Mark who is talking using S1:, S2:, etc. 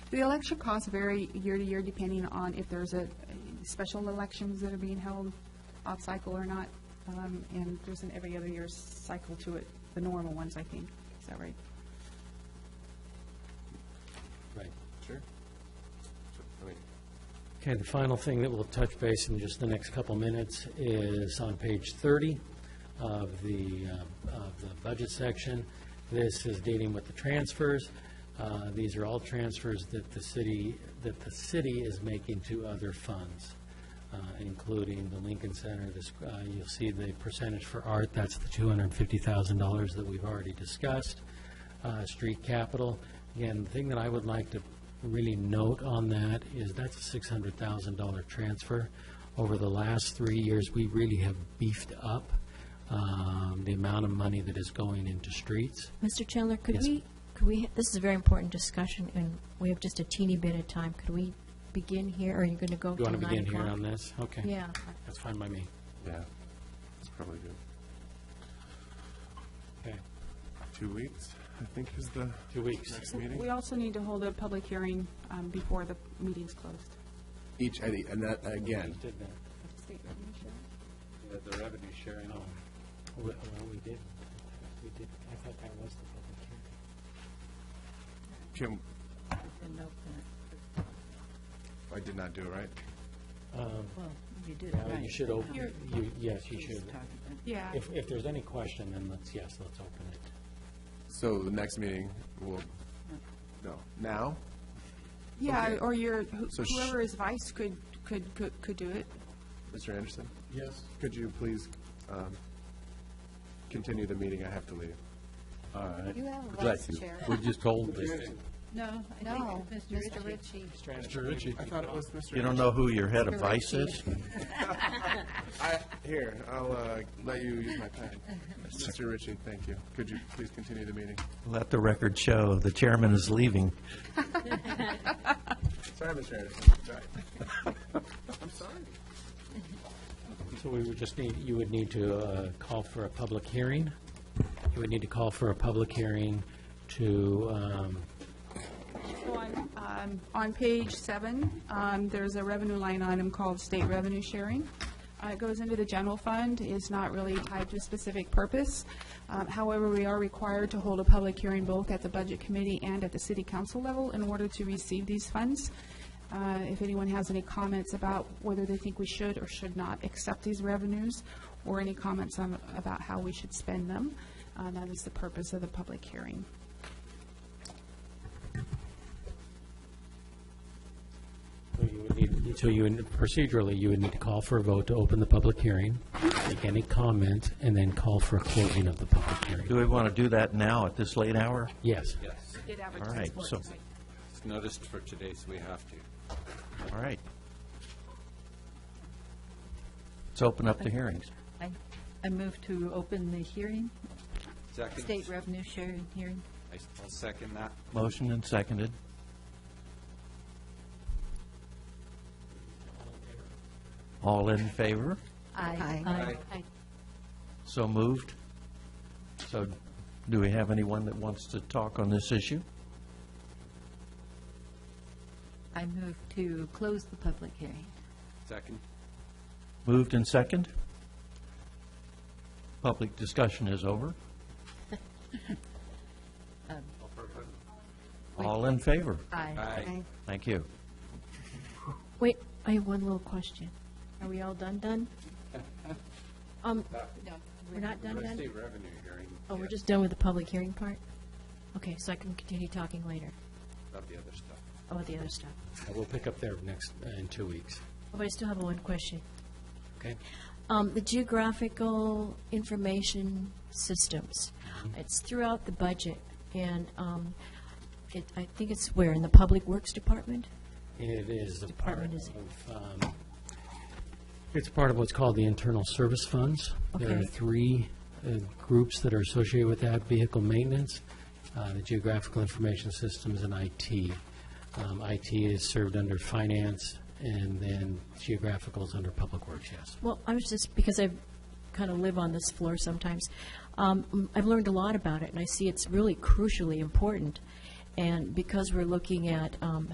S1: The election costs vary year to year depending on if there's a, special elections that are being held off cycle or not. Um, and there's an every other year cycle to it, the normal ones, I think. Is that right?
S2: Right. Sure. I mean,
S3: Okay, the final thing that we'll touch base in just the next couple minutes is on page 30 of the, uh, of the budget section. This is dealing with the transfers. Uh, These are all transfers that the city, that the city is making to other funds, uh, including the Lincoln Center, this, uh, you'll see the percentage for art, that's the $250,000 that we've already discussed uh, street capital. Again, the thing that I would like to really note on that is that's a $600,000 transfer. Over the last three years, we really have beefed up um, the amount of money that is going into streets.
S4: Mr. Chandler, could
S3: Yes.
S4: we, could we, this is a very important discussion, and we have just a teeny bit of time. Could we begin here, or are you going to go
S3: Do you
S4: till
S3: want to begin
S4: nine
S3: here
S4: o'clock?
S3: on this? Okay.
S4: Yeah.
S3: That's fine by me.
S2: yeah, that's probably good.
S3: Okay.
S2: Two weeks, I think is the
S3: Two weeks.
S2: next meeting.
S1: We also need to hold a public hearing um, before the meeting's closed.
S5: Each, Eddie, and that, again,
S3: Did that. The revenue sharing. Well, we did, we did, I thought that was the public hearing.
S2: Kim? I did not do it right.
S6: Well, you did,
S3: Well,
S6: right.
S3: You should open, you, yes, you should.
S1: Yeah.
S3: If, if there's any question, then let's, yes, let's open it.
S5: so the next meeting will, no, now?
S1: Yeah,
S5: Okay.
S1: or your, who-
S5: So sh-
S1: whoever is vice could, could, could could do it.
S5: Mr. Anderson?
S2: Yes. Could you please um, continue the meeting? I have to leave.
S7: All right.
S8: You have a
S7: Glad
S8: vice
S7: you-
S8: chair.
S7: We're just holding this.
S6: No, I
S8: No,
S6: think
S8: Mr.
S6: Mr. Ritchie.
S8: Ritchie.
S2: Mr. Ritchie. I thought it was Mr.
S7: You don't know who your head of vice
S8: Correct.
S7: is?
S5: I, here, I'll uh, let you use my pen. Mr. Ritchie, thank you. Could you please continue the meeting?
S7: Let the record show, the chairman is leaving.
S5: Sorry, Mr. Anderson. Sorry.
S3: So we would just need, you would need to uh, call for a public hearing. You would need to call for a public hearing to, um,
S1: On, um, on page seven, um, there's a revenue line item called state revenue sharing. Uh, It goes into the general fund, it's not really tied to a specific purpose. Um, However, we are required to hold a public hearing both at the Budget Committee and at the City Council level in order to receive these funds. Uh, If anyone has any comments about whether they think we should or should not accept these revenues, or any comments on, about how we should spend them, uh, that is the purpose of the public hearing.
S3: so you would need, so you, would- procedurally, you would need to call for a vote to open the public hearing, make any comments, and then call for a closing of the public hearing.
S7: Do we want to do that now at this late hour?
S3: Yes.
S7: All right, so,
S9: It's noticed for today, so we have to.
S7: all right. Let's open up the hearings.
S6: I, I move to open the hearing,
S9: Second?
S6: state revenue sharing hearing.
S9: I- I'll second that.
S7: Motion and seconded. All in favor?
S6: Aye.
S9: Aye.
S7: So moved. So do we have anyone that wants to talk on this issue?
S6: I move to close the public hearing.
S9: Second?
S7: Moved and second. Public discussion is over. All in favor?
S6: Aye.
S9: Aye.
S7: Thank you.
S4: Wait, I have one little question. Are we all done, done? Um, we're not done, done?
S9: State revenue hearing,
S4: Oh, we're just done with the public hearing part? Okay, so I can continue talking later
S9: about the other stuff.
S4: about the other stuff.
S3: We'll pick up there next, in two weeks.
S4: But I still have one question.
S3: Okay?
S4: Um, the geographical information systems. It's throughout the budget, and um, it, I think it's where in the Public Works Department.
S3: It is a part
S4: Department is-
S3: of, um, it's part of what's called the internal service funds. There are
S4: Okay.
S3: three uh, groups that are associated with that, vehicle maintenance, uh, the geographical information systems, and IT. Um, IT is served under finance, and then geographical is under public works, yes.
S4: Well, I was just, because I kind of live on this floor sometimes, um, I've learned a lot about it, and I see it's really crucially important. And because we're looking at um,